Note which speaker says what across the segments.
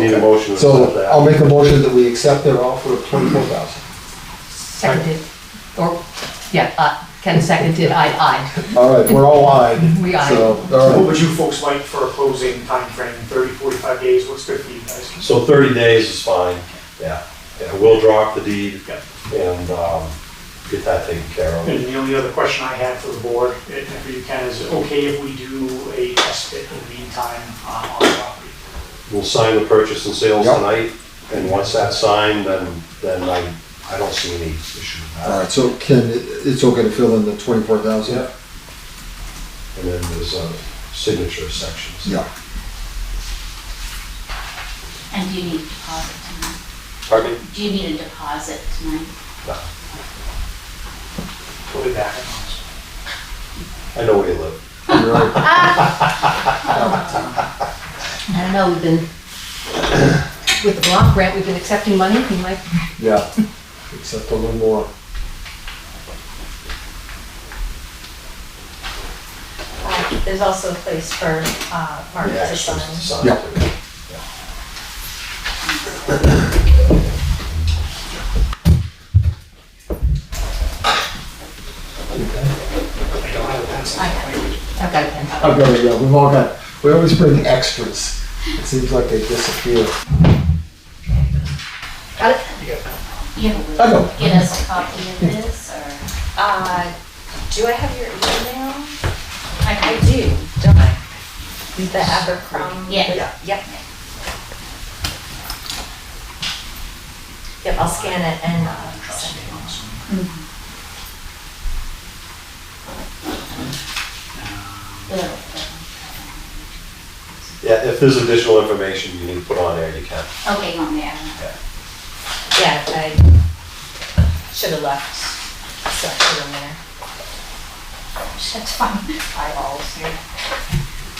Speaker 1: need a motion to
Speaker 2: So
Speaker 1: accept that.
Speaker 2: I'll make a motion that we accept their offer of twenty-four thousand.
Speaker 3: Seconded, or, yeah, uh, Ken seconded, I, I.
Speaker 2: All right, we're all eyed.
Speaker 3: We eyed.
Speaker 2: So, all
Speaker 4: What
Speaker 2: right.
Speaker 4: would you folks like for a closing timeframe, 30, 45 days, what's good for you guys?
Speaker 1: So thirty days is fine, yeah. Yeah, we'll drop the deed
Speaker 4: Yep.
Speaker 1: and, um, get that taken care of.
Speaker 4: And the only other question I had for the board, if you can, is it okay if we do a test pit in the meantime uh, on the property?
Speaker 1: We'll sign the purchase and sales
Speaker 2: Yep.
Speaker 1: tonight, and once that's signed, then, then I, I don't see any issue with
Speaker 2: All
Speaker 1: that.
Speaker 2: right, so Ken, it- it's okay to fill in the twenty-four thousand?
Speaker 1: Yep. And then there's, uh, signature sections.
Speaker 2: Yeah.
Speaker 5: And do you need a deposit tonight?
Speaker 1: Pardon me?
Speaker 5: Do you need a deposit tonight?
Speaker 4: We'll be back in a
Speaker 1: I know where you live.
Speaker 2: You're right.
Speaker 3: I don't know, we've been, with the block grant, we've been accepting money, we might,
Speaker 2: Yeah, except a little more.
Speaker 6: Uh, There's also a place for uh, Mark
Speaker 1: The
Speaker 6: to
Speaker 1: actions to sign.
Speaker 6: sign.
Speaker 2: Yeah.
Speaker 4: month. I don't have a pencil.
Speaker 3: I've got a pen.
Speaker 2: I've got it, yeah, we've all got, we always bring extras. It seems like they disappear.
Speaker 3: Got it?
Speaker 5: You
Speaker 2: I know.
Speaker 5: get us a copy of this, or?
Speaker 6: Uh, Do I have your email? I
Speaker 5: I
Speaker 6: do, don't I? The Abercrombie?
Speaker 5: Yeah.
Speaker 6: Yep. Yep, I'll scan it and uh, send it.
Speaker 1: Yeah, if there's additional information you need to put on there, you can.
Speaker 5: Okay, on there.
Speaker 6: Yeah, I should have left something in there.
Speaker 5: That's fine. Eyeballs here.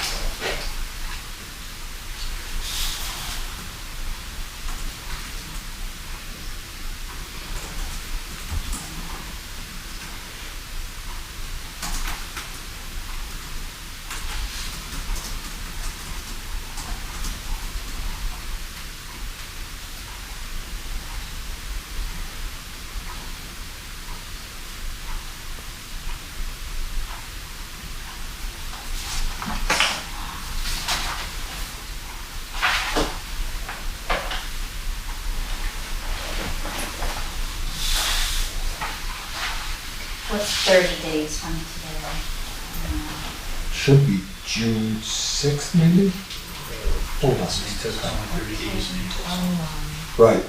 Speaker 5: What's thirty days from today? Um,
Speaker 2: Should be June sixth, maybe? Hold on. Right.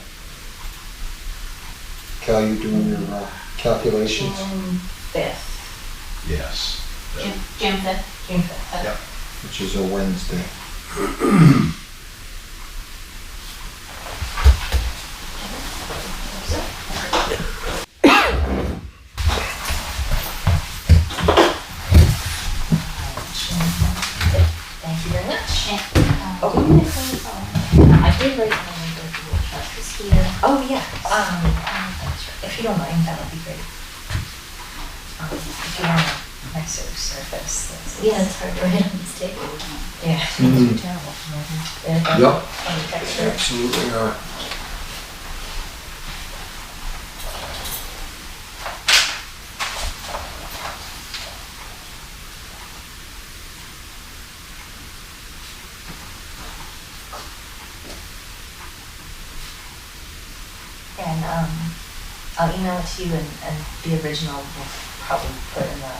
Speaker 2: Cal, you doing your uh, calculations?
Speaker 6: June fifth,
Speaker 1: Yes.
Speaker 5: June, June fifth?
Speaker 6: June fifth.
Speaker 2: Which is a Wednesday.
Speaker 6: Thank you very much.
Speaker 5: Yeah.
Speaker 6: Oh.
Speaker 5: I did write on the virtual trust is here.
Speaker 6: Oh, yeah, um,
Speaker 5: Um, that's right.
Speaker 6: if you don't mind, that would be great. Um, If you want a nicer surface. that's-
Speaker 5: Yeah, it's hard to write on this table.
Speaker 6: Yeah.
Speaker 2: Mhm.
Speaker 6: Terrible. And-
Speaker 2: Yep,
Speaker 6: and texture.
Speaker 2: absolutely are.
Speaker 6: And um, I'll email it to you and, and the original will probably put in the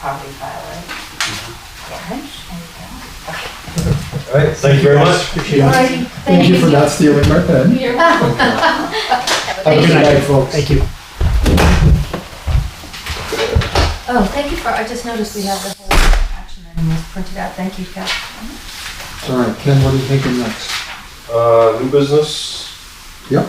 Speaker 6: property file, right? Yeah, right?
Speaker 2: All right,
Speaker 1: Thank you very much.
Speaker 2: Thank you for not stealing my pen.
Speaker 5: You're welcome.
Speaker 2: Have a good night, folks.
Speaker 4: Thank you.
Speaker 3: Oh, thank you for, I just noticed we have the whole action item was printed out, thank you, Cal.
Speaker 2: All right, Ken, what are you thinking next?
Speaker 1: Uh, new business,
Speaker 2: Yep,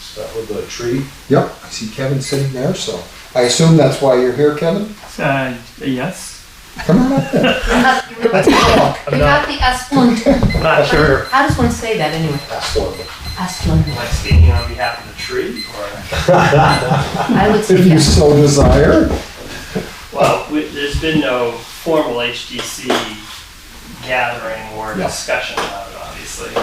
Speaker 1: start with the tree.
Speaker 2: yep, I see Kevin sitting there, so I assume that's why you're here, Kevin?
Speaker 7: Uh, yes.
Speaker 2: Come on up then.
Speaker 3: You're not the Asplund,
Speaker 7: Not sure.
Speaker 3: how does one say that anyway?
Speaker 1: That's one.
Speaker 3: Asplund,
Speaker 7: I speaking on behalf of the tree or?
Speaker 3: I would say
Speaker 2: If you
Speaker 3: yes.
Speaker 2: so desire.
Speaker 7: Well, we, there's been no formal HDC gathering or
Speaker 2: Yeah.
Speaker 7: discussion about it, obviously.